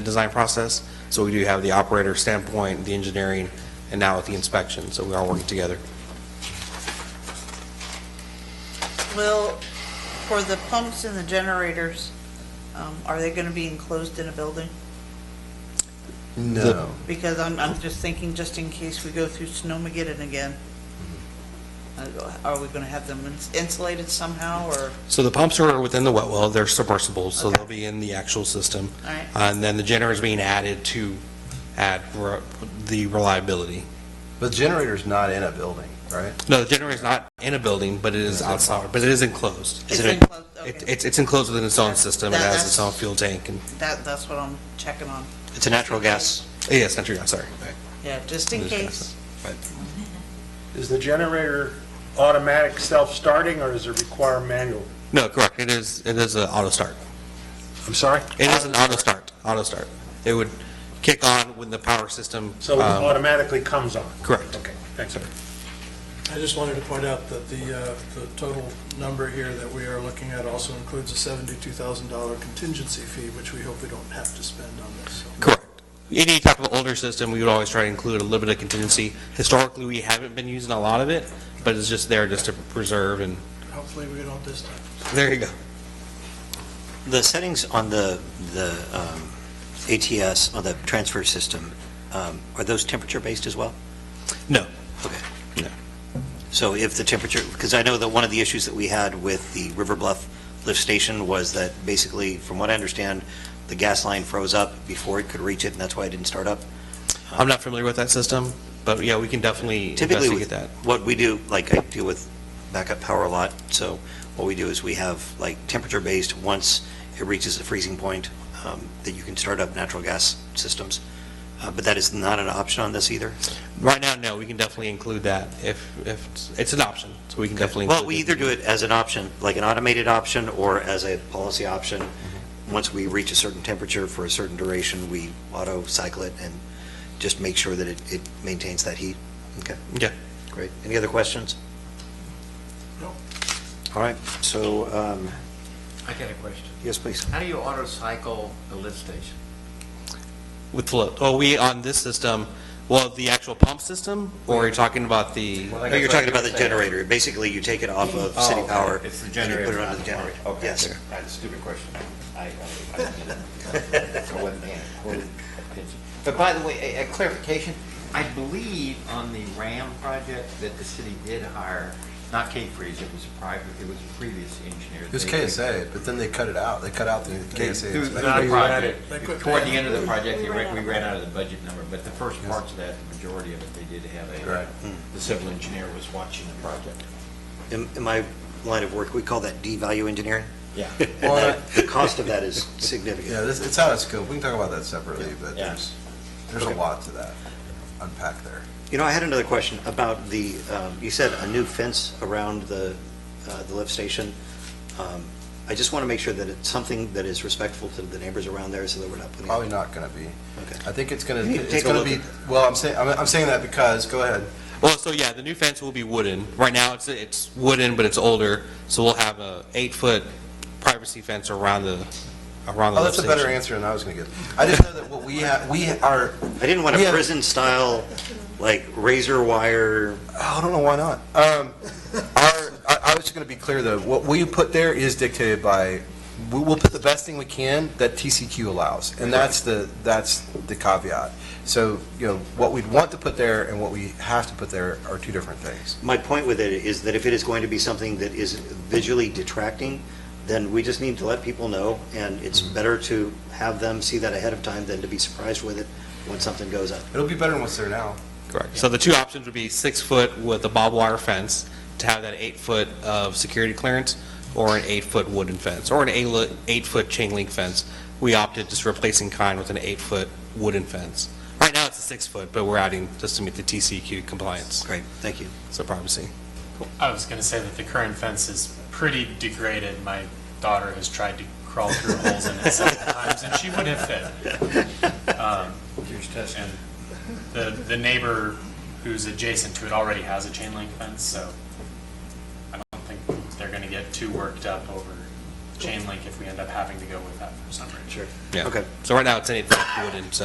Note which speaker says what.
Speaker 1: design process. So we do have the operator standpoint, the engineering, and now with the inspection, so we are working together.
Speaker 2: Will, for the pumps and the generators, um, are they going to be enclosed in a building?
Speaker 3: No.
Speaker 2: Because I'm, I'm just thinking, just in case we go through Snowmageddon again, uh, are we going to have them ins- insulated somehow, or,
Speaker 1: So the pumps are within the wet well, they're submersible, so
Speaker 2: Okay.
Speaker 1: they'll be in the actual system. Uh,
Speaker 2: all right?
Speaker 1: And then the generator is being added to add re- the reliability.
Speaker 3: But generator's not in a building, right?
Speaker 1: No, the generator is not in a building, but it is outside, but it is enclosed.
Speaker 2: It's
Speaker 1: It-
Speaker 2: enclosed,
Speaker 1: it-
Speaker 2: okay.
Speaker 1: It's, it's enclosed within its own system, it
Speaker 2: That-
Speaker 1: has its
Speaker 2: that's-
Speaker 1: own fuel tank, and,
Speaker 2: That, that's what I'm checking on.
Speaker 4: It's a natural gas.
Speaker 1: yes, not true, I'm sorry.
Speaker 2: Yeah, just in
Speaker 1: Just gonna
Speaker 2: case.
Speaker 5: Is the generator automatic self-starting, or does it require manual?
Speaker 1: No, correct, it is, it is an auto start.
Speaker 5: I'm sorry?
Speaker 1: It is an auto start, auto start. It would kick on when the power system.
Speaker 5: So it
Speaker 1: um,
Speaker 5: automatically comes on?
Speaker 1: Correct.
Speaker 5: Okay, thanks.
Speaker 6: I just wanted to point out that the, uh, the total number here that we are looking at also includes a $72,000 contingency fee, which we hope we don't have to spend on this.
Speaker 1: Correct. Any type of older system, we would always try to include a little bit of contingency. Historically, we haven't been using a lot of it, but it's just there just to preserve and,
Speaker 6: Hopefully, we don't this time.
Speaker 1: there you go.
Speaker 4: The settings on the, the um, ATS, on the transfer system, um, are those temperature-based as well?
Speaker 1: No.
Speaker 4: Okay.
Speaker 1: No.
Speaker 4: So if the temperature, because I know that one of the issues that we had with the River Bluff lift station was that basically, from what I understand, the gas line froze up before it could reach it, and that's why it didn't start up.
Speaker 1: I'm not familiar with that system, but yeah, we can definitely
Speaker 4: Typically,
Speaker 1: investigate
Speaker 4: with
Speaker 1: that.
Speaker 4: what we do, like I deal with backup power a lot, so what we do is we have like temperature-based, once it reaches the freezing point, um, that you can start up natural gas systems. Uh, But that is not an option on this either?
Speaker 1: Right now, no, we can definitely include that if, if, it's- it's an option, so we can definitely.
Speaker 4: Well,
Speaker 1: include
Speaker 4: we either do it as an option, like an automated option, or as a policy option. Once we reach a certain temperature for a certain duration, we auto-cycle it and just make sure that it, it maintains that heat. Okay,
Speaker 1: Yeah.
Speaker 4: great. Any other questions?
Speaker 6: No.
Speaker 4: All right, so, um,
Speaker 7: I got a question.
Speaker 4: yes, please.
Speaker 7: How do you auto cycle a lift station?
Speaker 1: With float. Well, we, on this system, well, the actual pump system, or are you talking about the?
Speaker 7: Well, I
Speaker 4: No, you're
Speaker 7: guess I
Speaker 4: talking about the
Speaker 7: understand.
Speaker 4: generator. Basically, you take it off of
Speaker 7: Oh,
Speaker 4: city
Speaker 7: okay.
Speaker 4: power.
Speaker 7: It's the
Speaker 4: and you
Speaker 7: generator.
Speaker 4: Put it
Speaker 7: not
Speaker 4: onto the
Speaker 7: the
Speaker 4: generator.
Speaker 7: pump. Okay.
Speaker 4: Yes.
Speaker 7: That's a stupid question. I, I, I- I wasn't paying close attention. But by the way, a, a clarification, I believe on the RAM project that the city did hire, not Cape Freeze, it was a private, it was a previous engineer.
Speaker 3: It was
Speaker 7: They-
Speaker 3: KSA, but then they cut it out. They cut out the
Speaker 7: They-
Speaker 3: KSA.
Speaker 7: Through
Speaker 3: inspection.
Speaker 7: the project,
Speaker 6: They quit
Speaker 7: toward the
Speaker 6: paying.
Speaker 7: end of the project, they ran- we
Speaker 8: We
Speaker 7: ran out of the budget number, but the first parts of that, the majority of it, they did have a,
Speaker 3: Right.
Speaker 7: the civil engineer was watching the project.
Speaker 4: In in my line of work, we call that devalue engineering.
Speaker 7: Yeah. uh,
Speaker 4: And
Speaker 3: Well,
Speaker 4: that- the cost of that is
Speaker 3: Yeah,
Speaker 4: significant.
Speaker 3: this, it's out of scope. We can talk about that separately, but
Speaker 7: Yeah.
Speaker 3: there's, there's a
Speaker 4: Okay.
Speaker 3: lot to that unpack there.
Speaker 4: You know, I had another question about the, um, you said a new fence around the, uh, the lift station. Um, I just want to make sure that it's something that is respectful to the neighbors around there so that we're not putting.
Speaker 7: Oh,
Speaker 3: Probably not gonna be.
Speaker 4: Okay.
Speaker 3: I think it's gonna,
Speaker 4: You need to
Speaker 3: it's
Speaker 4: take a
Speaker 3: gonna
Speaker 4: look
Speaker 3: be,
Speaker 4: at it.
Speaker 3: well, I'm saying, I'm, I'm saying that because, go ahead.
Speaker 1: Well, so yeah, the new fence will be wooden. Right now, it's, it's wooden, but it's older, so we'll have a eight-foot privacy fence around the, around the
Speaker 3: Oh,
Speaker 1: lift
Speaker 3: that's a
Speaker 1: station.
Speaker 3: better answer than I was gonna give. I just know that what we have, we are,
Speaker 4: I didn't want
Speaker 3: We
Speaker 4: a
Speaker 3: have-
Speaker 4: prison-style, like razor wire
Speaker 3: Oh, I don't know why not. Um, our, I, I was just going to be clear though. What we put there is dictated by. We, we'll put the best thing we can that TCQ allows, and that's the that's the caveat. So you know what we'd want to put there and what we have to put there are two different things.
Speaker 4: My point with it is that if it is going to be something that is visually detracting, then we just need to let people know, and it's better to have them see that ahead of time than to be surprised with it when something goes up.
Speaker 3: It'll be better than what's there now.
Speaker 1: Correct. So the two options would be six-foot with a barbed wire fence to have that eight-foot of security clearance, or an eight-foot wooden fence, or an eight- eight-foot chain link fence. We opted just replacing kind with an eight-foot wooden fence. Right now, it's a six-foot, but we're adding just to meet the TCQ compliance,
Speaker 4: Great, thank you.
Speaker 1: so privacy.
Speaker 9: I was going to say that the current fence is pretty degraded. My daughter has tried to crawl through holes in it several times, and she would have fit. Um, And the, the neighbor who's adjacent to it already has a chain link fence, so I don't think they're going to get too worked up over
Speaker 10: chain link if we end up having to go with that for some reason.
Speaker 9: Sure.
Speaker 1: Yeah.
Speaker 9: Okay.
Speaker 1: So right now, it's an eight-foot wood and